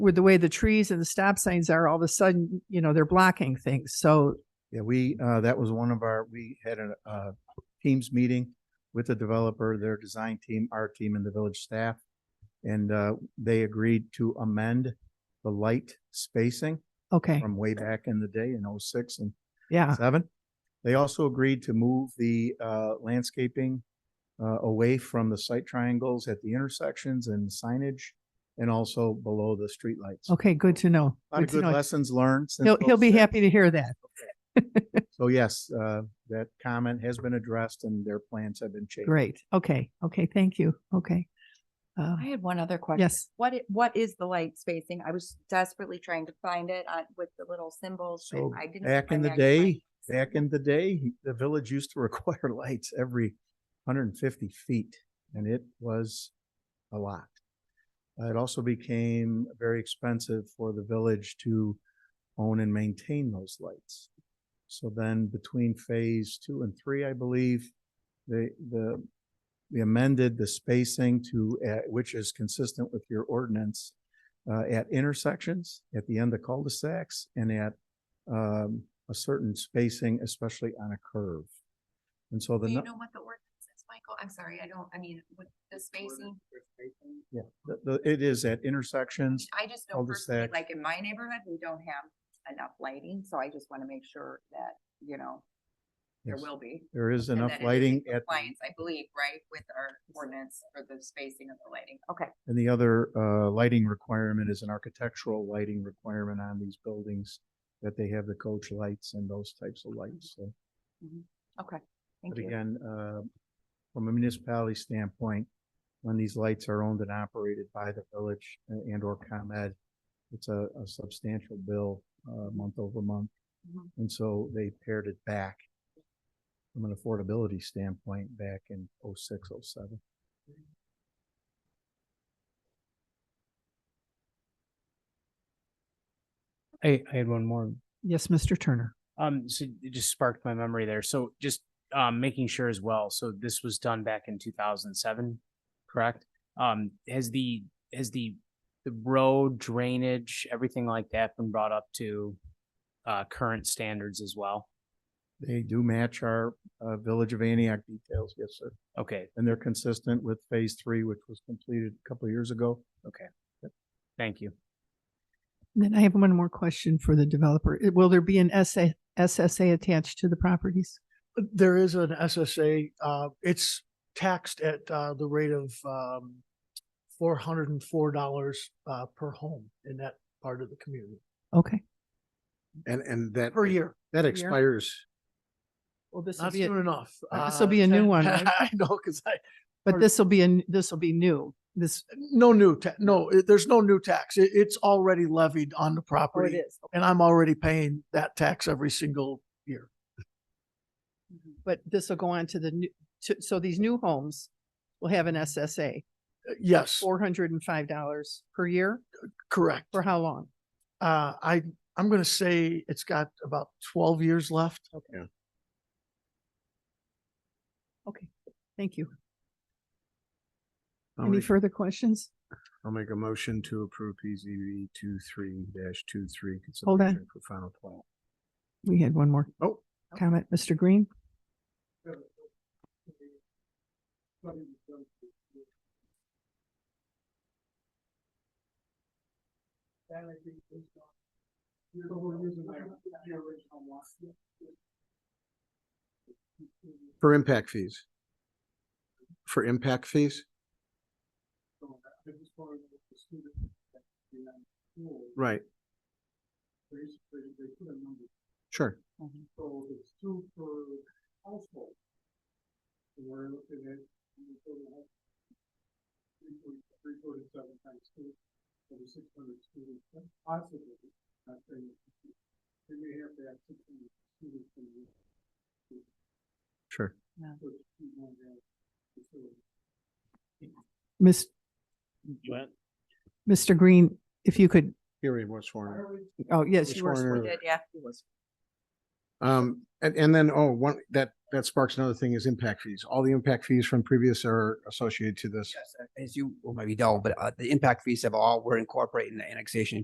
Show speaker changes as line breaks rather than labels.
with the way the trees and the stop signs are, all of a sudden, you know, they're blocking things. So
Yeah, we, uh, that was one of our, we had a, uh, teams meeting with the developer, their design team, our team and the village staff. And, uh, they agreed to amend the light spacing
okay,
from way back in the day in oh six and
yeah,
seven. They also agreed to move the, uh, landscaping, uh, away from the site triangles at the intersections and signage and also below the streetlights.
okay, good to know.
A lot of
Good to
good
know.
lessons learned. since
He'll he'll be
06.
happy to hear that.
So yes, uh, that comment has been addressed and their plans have been changed.
Great. Okay, okay, thank you. Okay. Uh,
I had one other question.
yes.
What, i- what is the light spacing? I was desperately trying to find it uh, with the little symbols. but
So
I didn't
back in
find
the
it. I couldn't find
day,
it.
back in the day, the village used to require lights every hundred and fifty feet and it was a lot. Uh, It also became very expensive for the village to own and maintain those lights. So then between phase two and three, I believe, the, the, we amended the spacing to, uh, which is consistent with your ordinance, uh, at intersections, at the end of cul-de-sacs and at, um, a certain spacing, especially on a curve. And so the.
Do
nu-
you know what the ordinance is, Michael? I'm sorry, I don't, I mean, with the spacing,
Yeah, the, the, it is at intersections.
I just know personally,
cul-de-sac.
like in my neighborhood, we don't have enough lighting, so I just want to make sure that, you know, there
Yes,
will be.
There is
and
enough
that it is in
lighting at,
Compliance, I believe, right, with our ordinance for the spacing of the lighting. Okay,
and the other, uh, lighting requirement is an architectural lighting requirement on these buildings that they have the coach lights and those types of lights, so.
okay, thank
But
you.
again, uh, from a municipality standpoint, when these lights are owned and operated by the village a- and or ComEd, it's a, a substantial bill, uh, month over month.
Mhm.
And so they pared it back from an affordability standpoint back in oh six, oh seven.
I, I had one more.
Yes, Mr. Turner.
Um, so it just sparked my memory there. So just, um, making sure as well. So this was done back in two thousand seven, correct? Um, has the, has the, the road drainage, everything like that been brought up to, uh, current standards as well?
They do match our, uh, Village of Antioch details, yes, sir.
Okay,
And they're consistent with phase three, which was completed a couple of years ago.
thank you.
And Then I have one more question for the developer. Uh, Will there be an SA SSA attached to the properties?
there is an SSA, uh, it's taxed at, uh, the rate of, um, four hundred and four dollars, uh, per home in that part of the community,
Okay.
And, and that,
per year.
that
year.
expires,
Well, this will
Not
be,
soon enough.
uh, this'll
Uh,
be a new
ten-
one, right?
I know, cause I,
but this will be, a this will be new. This,
no new, ta- no, it- there's no new tax. It, it's already levied on the
or it
property.
is.
And I'm already paying that tax every single year.
But this will go on to the new, to, so these new homes will have an SSA,
Uh, Yes,
four hundred and five dollars per year.
correct.
For how long?
Uh, I, I'm gonna say it's got about twelve years left.
Okay, thank you.
I'll
Any
make,
further questions?
I'll make a motion to approve PZB two three dash two three.
Hold on.
For final plan.
We had one more.
Oh.
Comment, Mr. Green?
For impact fees. For impact fees? Right. Sure.
So it's two per household. And We're looking at. Three forty, three forty-seven times two, over six hundred students, that's possibly, I think. Then we have to have six hundred students in the.
Sure.
which we won't have facility.
Miss, Mr. Green, if you could,
Here we were sworn. in.
oh, yes,
Which
you were.
one
sworn
are-
in.
Did, yeah.
Um, and, and then, oh, one, that
that sparks another thing is impact fees. All the impact fees from previous are associated to this.
Yes, as you well, maybe know, but uh, the impact fees have all, were incorporated in the annexation